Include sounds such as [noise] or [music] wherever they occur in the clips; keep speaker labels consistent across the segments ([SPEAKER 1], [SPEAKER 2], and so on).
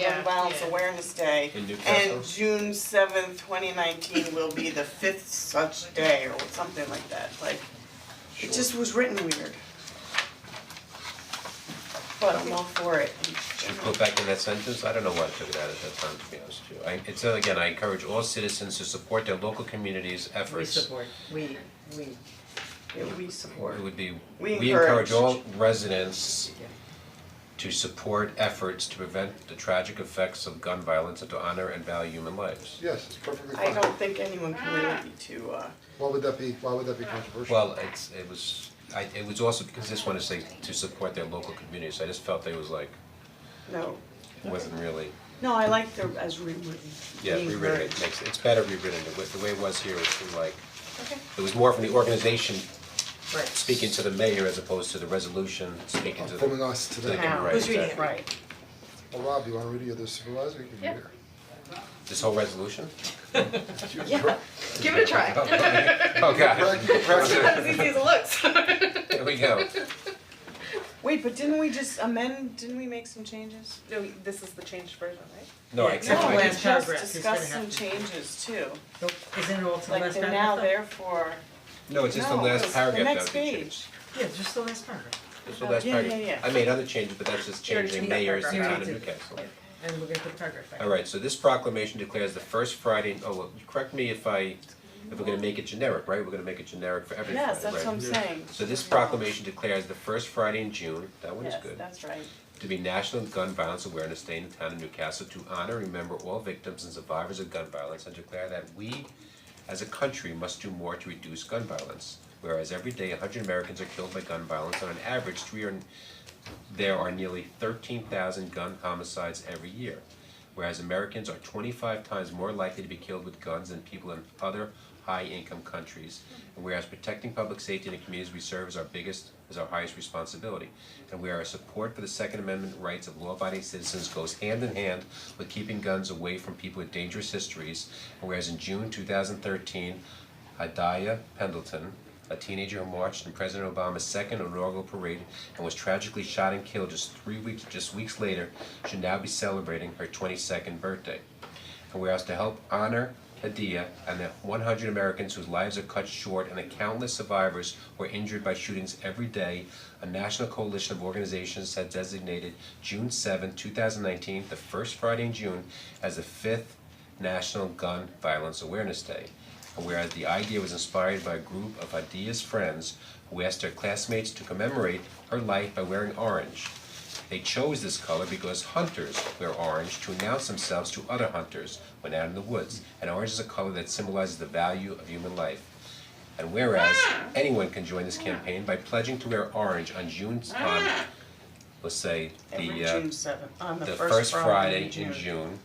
[SPEAKER 1] Gun Violence
[SPEAKER 2] yeah.
[SPEAKER 1] Awareness Day.
[SPEAKER 3] In
[SPEAKER 1] And June seventh, twenty nineteen will be the fifth such day or something like that, like, it just was written weird. But I'm all for it in
[SPEAKER 3] Should
[SPEAKER 1] general.
[SPEAKER 3] put back in that sentence, I don't know why I took it out at that time, to be honest with you. I, it said again, I encourage all citizens to support their local communities'
[SPEAKER 2] We
[SPEAKER 3] efforts.
[SPEAKER 2] support, we, we,
[SPEAKER 1] Yeah, we support.
[SPEAKER 3] It would be,
[SPEAKER 1] We
[SPEAKER 3] we encourage
[SPEAKER 1] encourage.
[SPEAKER 3] all residents to support efforts to prevent the tragic effects of gun violence and to honor and value human lives.
[SPEAKER 4] Yes, it's perfectly
[SPEAKER 1] I
[SPEAKER 4] fine.
[SPEAKER 1] don't think anyone can really be too, uh,
[SPEAKER 4] Why would that be, why would that be controversial?
[SPEAKER 3] Well, it's, it was, I, it was also because this one is saying to support their local communities, I just felt it was like,
[SPEAKER 1] no,
[SPEAKER 3] it wasn't really,
[SPEAKER 1] no, I like the, as rewritten,
[SPEAKER 3] yeah,
[SPEAKER 1] being
[SPEAKER 3] rewritten,
[SPEAKER 1] heard.
[SPEAKER 3] it makes, it's better rewritten, the way, the way it was here, it was like,
[SPEAKER 1] Okay.
[SPEAKER 3] it was more from the organization
[SPEAKER 2] right.
[SPEAKER 3] speaking to the mayor as opposed to the resolution, speaking to the.
[SPEAKER 4] From us to them.
[SPEAKER 3] Thinking, right,
[SPEAKER 1] Who's reading it?
[SPEAKER 3] exactly.
[SPEAKER 1] Right.
[SPEAKER 4] Well, Rob, you wanna read it, or the supervisor, you can read it.
[SPEAKER 3] This
[SPEAKER 1] [laughs]
[SPEAKER 3] whole resolution?
[SPEAKER 4] Yeah.
[SPEAKER 5] Give it a try.
[SPEAKER 3] Oh, God,
[SPEAKER 5] Not as easy as it [laughs] looks.
[SPEAKER 3] [laughs] here we go.
[SPEAKER 1] Wait, but didn't we just amend, didn't we make some changes?
[SPEAKER 5] no, this is the changed version, right?
[SPEAKER 3] No,
[SPEAKER 2] Yeah,
[SPEAKER 3] I
[SPEAKER 2] exactly.
[SPEAKER 3] I
[SPEAKER 1] No,
[SPEAKER 2] like
[SPEAKER 1] we
[SPEAKER 2] this
[SPEAKER 1] just
[SPEAKER 2] paragraph is gonna
[SPEAKER 1] discussed some
[SPEAKER 2] have to-
[SPEAKER 1] changes too,
[SPEAKER 2] Nope, Isn't it all to the
[SPEAKER 1] like
[SPEAKER 2] last paragraph?
[SPEAKER 1] they're now
[SPEAKER 2] though?
[SPEAKER 1] therefore,
[SPEAKER 3] no, it's just the
[SPEAKER 1] No, it
[SPEAKER 3] last
[SPEAKER 1] was
[SPEAKER 3] paragraph
[SPEAKER 1] the
[SPEAKER 3] that
[SPEAKER 1] next
[SPEAKER 3] would be
[SPEAKER 1] page.
[SPEAKER 3] changed.
[SPEAKER 2] Yeah, just the last paragraph,
[SPEAKER 3] It's the last
[SPEAKER 1] Yeah, yeah,
[SPEAKER 3] paragraph.
[SPEAKER 1] yeah.
[SPEAKER 3] I made other changes, but that's just
[SPEAKER 5] You already
[SPEAKER 3] changing
[SPEAKER 5] took that
[SPEAKER 3] mayors and
[SPEAKER 2] paragraph
[SPEAKER 3] town
[SPEAKER 2] out.
[SPEAKER 3] of
[SPEAKER 2] You
[SPEAKER 3] Newcastle.
[SPEAKER 2] already and we're gonna put the paragraph back.
[SPEAKER 3] Alright, so this proclamation declares the first Friday, oh, well, you correct me if I, if we're gonna make it generic, right? We're gonna make it generic for every Friday, right?
[SPEAKER 1] yes, that's what I'm saying.
[SPEAKER 3] So this proclamation declares the first Friday in June, that one is
[SPEAKER 1] Yes,
[SPEAKER 3] good.
[SPEAKER 1] that's right.
[SPEAKER 3] to be National Gun Violence Awareness Day in the town of Newcastle to honor and remember all victims and survivors of gun violence and declare that we as a country must do more to reduce gun violence. Whereas every day hundred Americans are killed by gun violence, on an average, three are, there are nearly thirteen thousand gun homicides every year. Whereas Americans are twenty-five times more likely to be killed with guns than people in other high-income countries. And whereas protecting public safety in the communities we serve is our biggest, is our highest responsibility. And whereas support for the Second Amendment rights of law-abiding citizens goes hand in hand with keeping guns away from people with dangerous histories. And whereas in June two thousand thirteen, Hadaya Pendleton, a teenager who marched in President Obama's second inaugural parade and was tragically shot and killed just three weeks, just weeks later, should now be celebrating her twenty-second birthday. And we're asked to help honor Hadia and the one hundred Americans whose lives are cut short and the countless survivors who are injured by shootings every day, a national coalition of organizations has designated June seventh, two thousand nineteen, the first Friday in June, as the fifth National Gun Violence Awareness Day. And whereas the idea was inspired by a group of Hadia's friends who asked their classmates to commemorate her life by wearing orange. They chose this color because hunters wear orange to announce themselves to other hunters when out in the woods, and orange is a color that symbolizes the value of human life. And whereas anyone can join this campaign by pledging to wear orange on June on let's say
[SPEAKER 1] Every
[SPEAKER 3] the uh,
[SPEAKER 1] June seventh, on the
[SPEAKER 3] the
[SPEAKER 1] first Friday in June.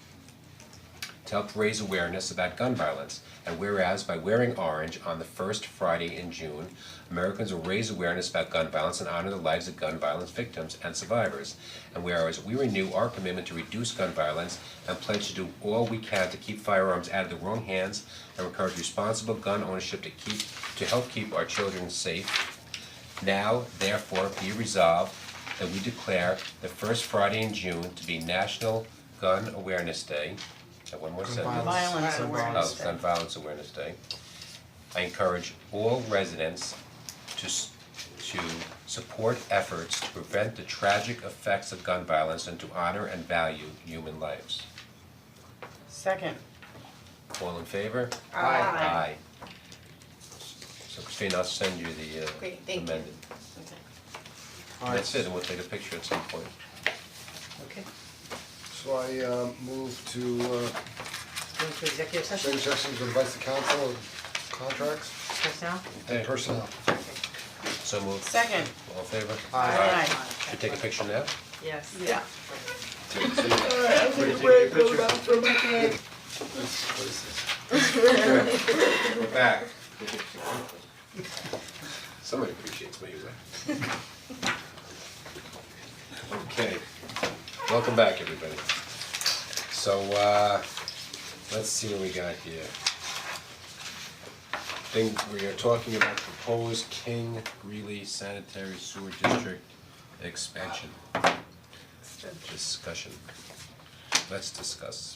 [SPEAKER 3] to help raise awareness about gun violence. And whereas by wearing orange on the first Friday in June, Americans will raise awareness about gun violence and honor the lives of gun violence victims and survivors. And whereas we renew our commitment to reduce gun violence and pledge to do all we can to keep firearms out of the wrong hands and encourage responsible gun ownership to keep to help keep our children safe now therefore be resolved that we declare the first Friday in June to be National Gun Awareness Day. Is that one more sentence?
[SPEAKER 1] Violence awareness
[SPEAKER 3] Oh, Gun
[SPEAKER 1] day.
[SPEAKER 3] Violence Awareness Day. I encourage all residents to s- to support efforts to prevent the tragic effects of gun violence and to honor and value human lives.
[SPEAKER 1] Second.
[SPEAKER 3] All in favor?
[SPEAKER 1] Aye.
[SPEAKER 3] Aye. So Christine, I'll send you the uh
[SPEAKER 5] Great, thank you.
[SPEAKER 3] amended. That's it, and we'll take a picture at some point.
[SPEAKER 2] Okay,
[SPEAKER 4] So I uh move to uh
[SPEAKER 2] going to executive session,
[SPEAKER 4] take sessions with advice to council on contracts
[SPEAKER 2] personnel?
[SPEAKER 4] and personnel.
[SPEAKER 3] So moved.
[SPEAKER 1] Second.
[SPEAKER 3] All in favor?
[SPEAKER 1] Aye.
[SPEAKER 3] Should we take a picture now?
[SPEAKER 2] Yes.
[SPEAKER 1] Yeah.
[SPEAKER 3] We're back. Somebody appreciates my user. Okay, welcome back, everybody. So, uh, let's see what we got here. Thing, we are talking about proposed King Greeley Sanitary Sewer District expansion. Discussion. let's discuss